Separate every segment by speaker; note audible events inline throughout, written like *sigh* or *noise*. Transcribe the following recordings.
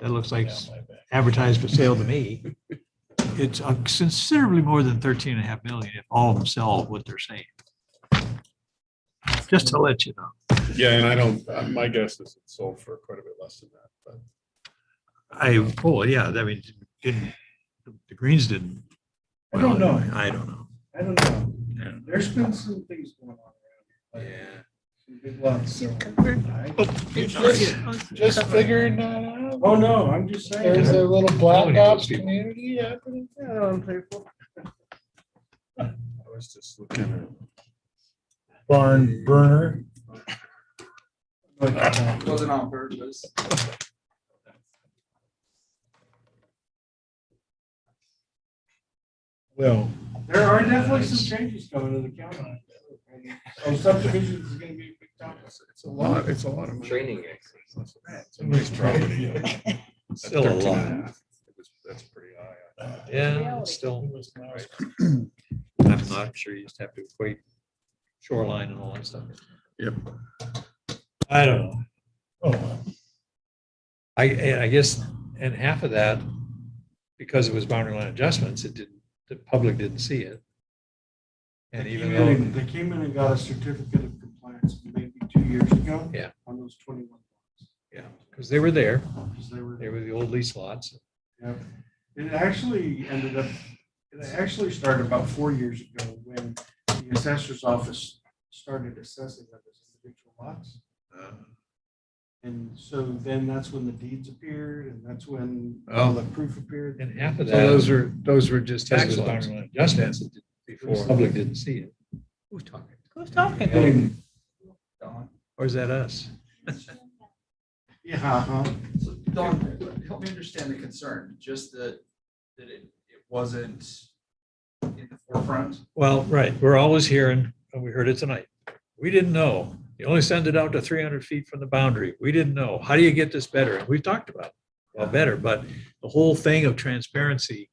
Speaker 1: That looks like
Speaker 2: down my back.
Speaker 1: advertised for sale to me. *laughs* It's uh, considerably more than 13 and a half million if all of them sell what they're saying. Just to let you know.
Speaker 2: Yeah, and I don't, uh, my guess is it sold for quite a bit less than that, but.
Speaker 1: I, oh, yeah, I mean, didn't, the Greens didn't.
Speaker 3: I don't
Speaker 1: well,
Speaker 3: know.
Speaker 1: I don't know.
Speaker 3: I don't know.
Speaker 1: Yeah.
Speaker 3: There's been some things going on. around here, Some big lots. so-
Speaker 1: Oh.
Speaker 3: I-
Speaker 4: Just figuring that out.
Speaker 3: Oh, no, I'm just
Speaker 4: There's
Speaker 3: saying.
Speaker 4: a little black
Speaker 1: Nobody knows
Speaker 4: ops
Speaker 1: people.
Speaker 4: community happening there on people.
Speaker 2: I was just looking
Speaker 4: Barn burner.
Speaker 3: Wasn't on purpose.
Speaker 4: Well,
Speaker 3: There are definitely some changes coming to the county. So subdivisions is gonna be a big
Speaker 2: at,
Speaker 3: topic.
Speaker 2: it's it's a lot, it's a lot of money.
Speaker 5: Training
Speaker 2: It's a nice property. At
Speaker 1: Still a
Speaker 2: 13
Speaker 1: lot.
Speaker 2: and half, it was- That's pretty high. I thought.
Speaker 1: Yeah, it's still. I'm not sure you just have to equate shoreline and all that stuff.
Speaker 2: Yep.
Speaker 1: I don't know.
Speaker 4: oh,
Speaker 1: I, and I guess, and half of that, because it was boundary line adjustments, it didn't, the public didn't see it. And
Speaker 3: They
Speaker 1: even
Speaker 3: came in
Speaker 1: though.
Speaker 3: and- They came in and got a certificate of compliance maybe two years ago.
Speaker 1: Yeah.
Speaker 3: On those twenty-one lots.
Speaker 1: Yeah, because they were there.
Speaker 3: Because they were.
Speaker 1: They were the old lease lots.
Speaker 3: Yep. It actually ended up, it actually started about four years ago when the assessor's office started assessing them as individual lots. And so then that's when the deeds appeared and that's when all the proof appeared.
Speaker 1: And half of
Speaker 2: So
Speaker 1: that,
Speaker 2: those were, those were just
Speaker 1: tax
Speaker 2: tax
Speaker 1: boundary
Speaker 2: lots.
Speaker 1: line adjustments that did- before, the public didn't see it. Who's talking?
Speaker 6: Who's talking?
Speaker 1: Or is that us?
Speaker 3: Yeah, uh-huh. huh?
Speaker 7: So Don, help me understand the concern, just that, that it, it wasn't in the forefront.
Speaker 1: Well, right, we're always hearing, and we heard it tonight. We didn't know. You only send it out to three hundred feet from the boundary. We didn't know. How do you get this better? And we've talked about, it. well, better, but the whole thing of transparency.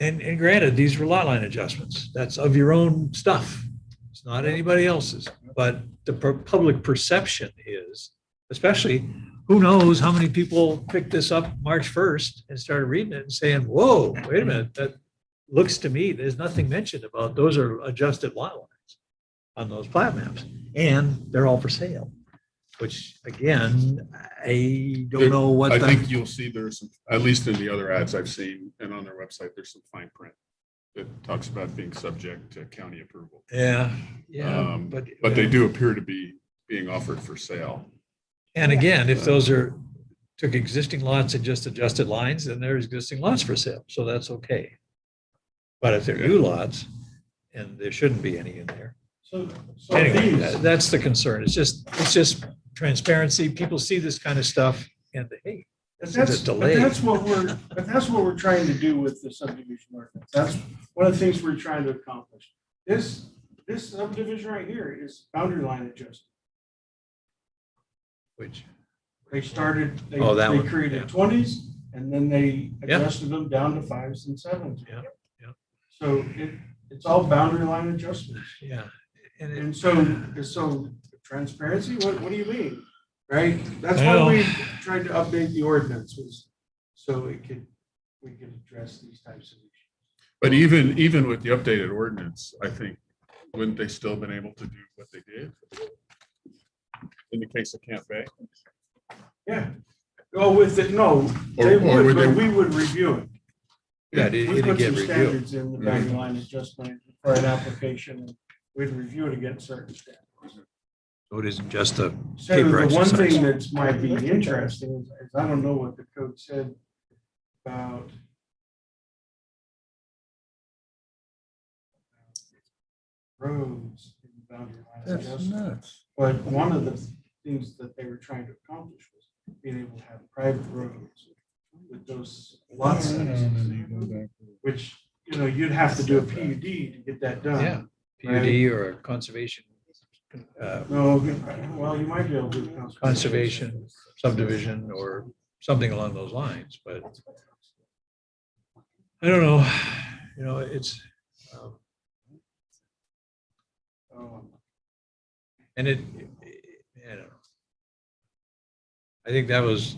Speaker 1: And, and granted, these were lot line adjustments. That's of your own stuff. It's not anybody else's. But the per- public perception is, especially, who knows how many people picked this up March first and started reading it and saying, whoa, wait a minute, that, looks to me, there's nothing mentioned about, those are adjusted lot lines on those plat maps, and they're all for sale, which again, I don't know what
Speaker 2: I think
Speaker 1: the,
Speaker 2: you'll see there's, some- at least in the other ads I've seen and on their website, there's some fine print that talks about being subject to county approval.
Speaker 1: yeah, yeah,
Speaker 2: Um,
Speaker 1: but.
Speaker 2: But they do appear to be being offered for sale.
Speaker 1: And again, if those are, took existing lots and just adjusted lines, then they're existing lots for sale, so that's okay. But if they're new lots, and there shouldn't be any in there,
Speaker 3: So, so
Speaker 1: Anyway,
Speaker 3: these,
Speaker 1: that- that's the concern. It's just, it's just transparency. People see this kind of stuff and they, hey,
Speaker 3: but
Speaker 1: this
Speaker 3: that's,
Speaker 1: is a
Speaker 3: but
Speaker 1: delay.
Speaker 3: that's what we're, but that's what we're trying to do with the subdivision ordinance. That's one of the things we're trying to accomplish. This, this subdivision right here is boundary line adjustment.
Speaker 1: Which,
Speaker 3: They started, they
Speaker 1: Oh, that
Speaker 3: they
Speaker 1: one, yeah.
Speaker 3: created twenties and then they
Speaker 1: Yeah.
Speaker 3: adjusted them down to fives and sevens.
Speaker 1: Yeah, yeah.
Speaker 3: So it, it's all boundary line adjustments.
Speaker 1: yeah. And it-
Speaker 3: And so, so transparency, what, what do you mean? Right? That's why
Speaker 1: Well-
Speaker 3: we tried to update the ordinance was so it could, we could address these types of issues.
Speaker 2: But even, even with the updated ordinance, I think, wouldn't they still been able to do what they did? In the case of Camp Bay?
Speaker 3: Yeah. Oh, with it, no,
Speaker 2: Or-
Speaker 3: they
Speaker 2: or
Speaker 3: would,
Speaker 2: would
Speaker 3: but
Speaker 2: they-
Speaker 3: we would review it.
Speaker 1: Yeah, it-
Speaker 3: We
Speaker 1: it'd
Speaker 3: put
Speaker 1: get
Speaker 3: some
Speaker 1: reviewed.
Speaker 3: standards in the boundary line adjustment for an application. and We'd review it against certain standards.
Speaker 1: So it isn't just a,
Speaker 3: So
Speaker 1: Paper
Speaker 3: the one
Speaker 1: exercise.
Speaker 3: thing that's might be interesting is- is I don't know what the code said about. Roads in the boundary line
Speaker 4: that's
Speaker 3: adjustment,
Speaker 4: nuts.
Speaker 3: but one of the things that they were trying to accomplish was being able to have private roads with those lot sizes. Which, you know, you'd have to do a PUD to get that done.
Speaker 1: yeah, PUD or a conservation, uh,
Speaker 3: No, well, you might be able to. do
Speaker 1: conservation subdivision or something along those lines, but I don't know, you know, it's, um,
Speaker 3: Um,
Speaker 1: and it, I don't know. I think that was